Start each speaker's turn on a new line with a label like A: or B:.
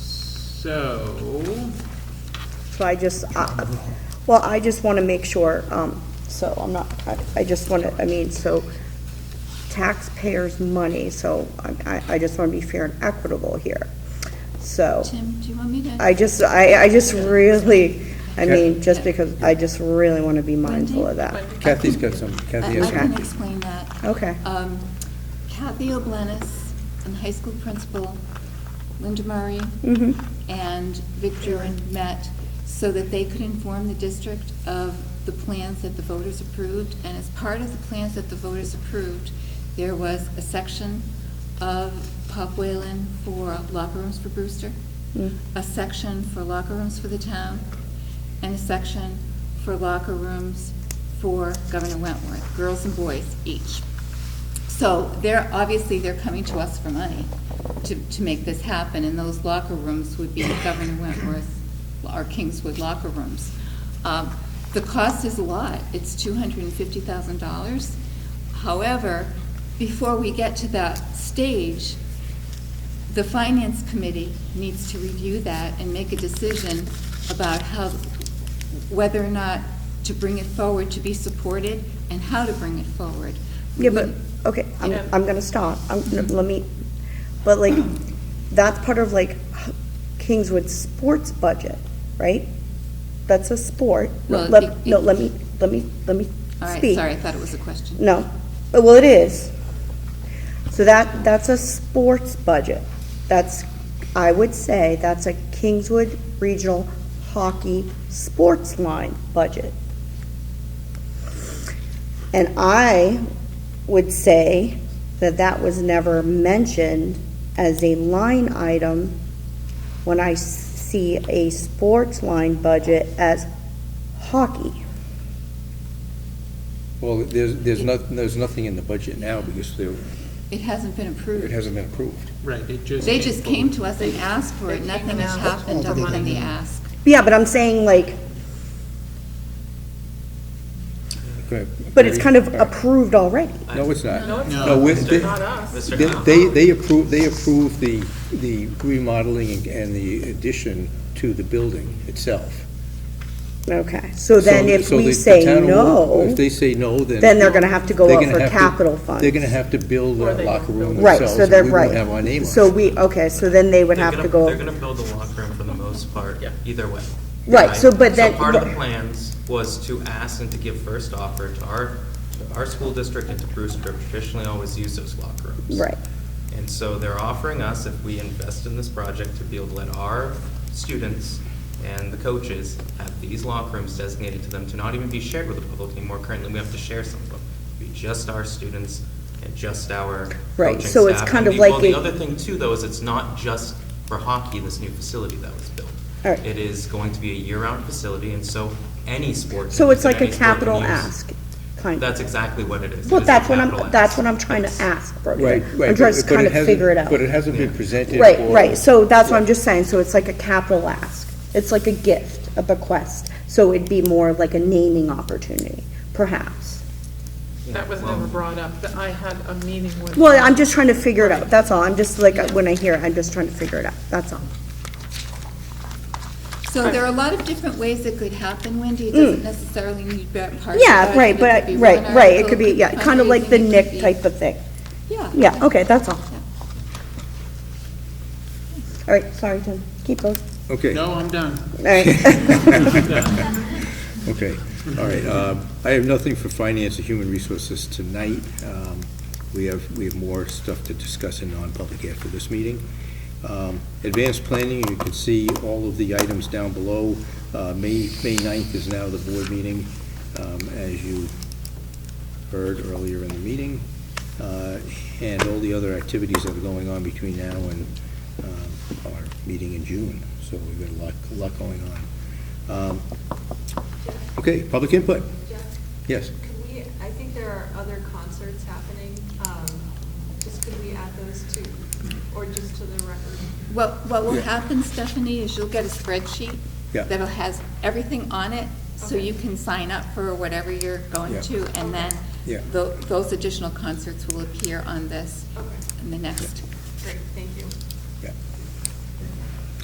A: So,
B: So I just, I- well, I just want to make sure, um, so I'm not, I- I just want to, I mean, so taxpayers' money, so I- I I just want to be fair and equitable here. So
C: Tim, do you want me to?
B: I just, I I just really, I mean, just
C: Okay.
B: because, I just really want to be mindful of that.
D: Kathy's got some, Kathy
B: Uh,
C: I I
D: has
C: can
D: some.
C: explain that.
B: Okay.
C: Um, Kathy Oblenis, and high school principal, Linda Murray,
B: Mhm.
C: and Vic Durin met so that they could inform the district of the plans that the voters approved. And as part of the plans that the voters approved, there was a section of Pop Whalen for locker rooms for Brewster,
B: Mm.
C: a section for locker rooms for the town, and a section for locker rooms for Governor Wentworth, girls and boys each. So they're, obviously, they're coming to us for money to, to make this happen, and those locker rooms would be Governor Wentworth or Kingswood locker rooms. Um, The cost is a lot, it's two hundred and fifty thousand dollars. However, before we get to that stage, the Finance Committee needs to review that and make a decision about how, whether or not to bring it forward to be supported, and how to bring it forward.
B: Yeah, but, okay, I'm,
E: Yeah.
B: I'm gonna stop, I'm, let me, but like, that's part of like Kingswood's sports budget, right? That's a sport, no,
C: Well, it-
B: let,
C: it-
B: no, let me, let me, let me
C: All right,
B: speak.
C: sorry, I thought it was a question.
B: No, Uh, well, it is. So that, that's a sports budget, that's, I would say, that's a Kingswood Regional Hockey Sports Line budget. And I would say that that was never mentioned as a line item when I s- see a sports line budget as hockey.
D: Well, there's, there's not, there's nothing in the budget now because there-
C: It hasn't been
D: it
C: approved.
D: hasn't been approved.
A: right, it just.
C: They just came to us and asked for it,
E: They
C: nothing
E: came
C: has
E: and asked
C: happened
E: for
C: other than
E: money.
C: the ask.
B: Yeah, but I'm saying like,
D: Go ahead.
B: But it's kind of
D: All right.
B: approved already.
D: No, it's not.
E: No, it's
D: No,
E: not.
D: we-
E: It's
D: they-
E: not us.
D: They- They, they approve, they approve the, the remodeling and- and the addition to the building itself.
B: Okay, so then
D: So-
B: if
D: so
B: we
D: the-
B: say
D: the town will-
B: no,
D: If they say no, then.
B: then they're gonna have to go
D: they're
B: up
D: gonna
B: for
D: have to-
B: capital funds.
D: They're gonna have to build
E: Or
D: a
E: they
D: locker
E: don't
D: room
E: build it.
B: right,
D: themselves.
B: so they're,
D: and
B: right.
D: We won't have our name on it.
B: So we, okay, so then they would
F: They're
B: have to
F: gonna- They're
B: go,
F: gonna build a locker room for the most part,
E: Yeah.
F: either way.
B: Right, so, but then-
F: So part of the plans was to ask and to give first offer to our, to our school district and to Brewster, traditionally always use those locker rooms.
B: right,
F: And so they're offering us, if we invest in this project, to be able to let our students and the coaches have these locker rooms designated to them to not even be shared with the public anymore. Currently, we have to share some of them. It'd Be just our students and just our
B: Right,
F: coaching
B: so it's
F: staff.
B: kind of
F: And the-
B: like
F: Well, the
B: a-
F: other thing too, though, is it's not just for hockey, this new facility that was built.
B: All right.
F: It is going to be a year-round facility, and so any sport.
B: so
F: can
B: it's
F: use it,
B: like a
F: any sport can
B: capital
F: use-
B: ask, kind of.
F: That's exactly what it is. It
B: Well,
F: is a
B: that's what I'm,
F: capital ask.
B: that's what I'm trying to
F: Yes.
B: ask,
D: Right,
B: Brody.
D: right.
B: I'm just
D: but- but
B: kind of
D: hasn't-
B: figure it out.
D: But it hasn't been presented.
B: Right,
D: or-
B: right, so that's what I'm just saying, so it's like a capital ask. It's like a gift, a bequest, so it'd be more like a naming opportunity, perhaps.
E: That was never brought up, that I had a meeting with.
B: Well, I'm just trying to figure it out, that's all, I'm just like, when I hear it, I'm just trying to figure it out, that's all.
C: So there are a lot of different ways it could happen, Wendy, it doesn't necessarily need that part. of
B: Mm. Yeah,
C: budget.
B: right,
C: It
B: but,
C: could be
B: right,
C: one
B: right, it
C: article,
B: could be, yeah, kind of like the
C: fundraising, it could
B: Nick
C: be-
B: type of thing.
C: Yeah.
B: Yeah, okay, that's all. All right, sorry, Tim, keep going.
D: Okay.
A: No, I'm done.
B: All right,
D: Okay, all right. um, I have nothing for finance and human resources tonight. Um, We have, we have more stuff to discuss in non-public after this meeting. Um, Advanced planning, you can see all of the items down below. Uh, May, May 9th is now the board meeting, um, as you heard earlier in the meeting. Uh, And all the other activities that are going on between now and um, our meeting in June. So we've got a lot, a lot going on. Um, Okay, public input?
G: Jeff,
D: Yes.
G: could we, I think there are other concerts happening, um, just could we add those to, or just to the record?
C: What, what will
D: Yeah.
C: happen, Stephanie, is you'll get a spreadsheet
D: Yeah.
C: that'll has everything on it, so
G: Okay.
C: you can sign up for whatever you're going
D: Yeah.
C: to, and then
D: Yeah.
C: tho- those additional concerts will appear on this,
G: Okay,
C: in the next.
G: great, thank you.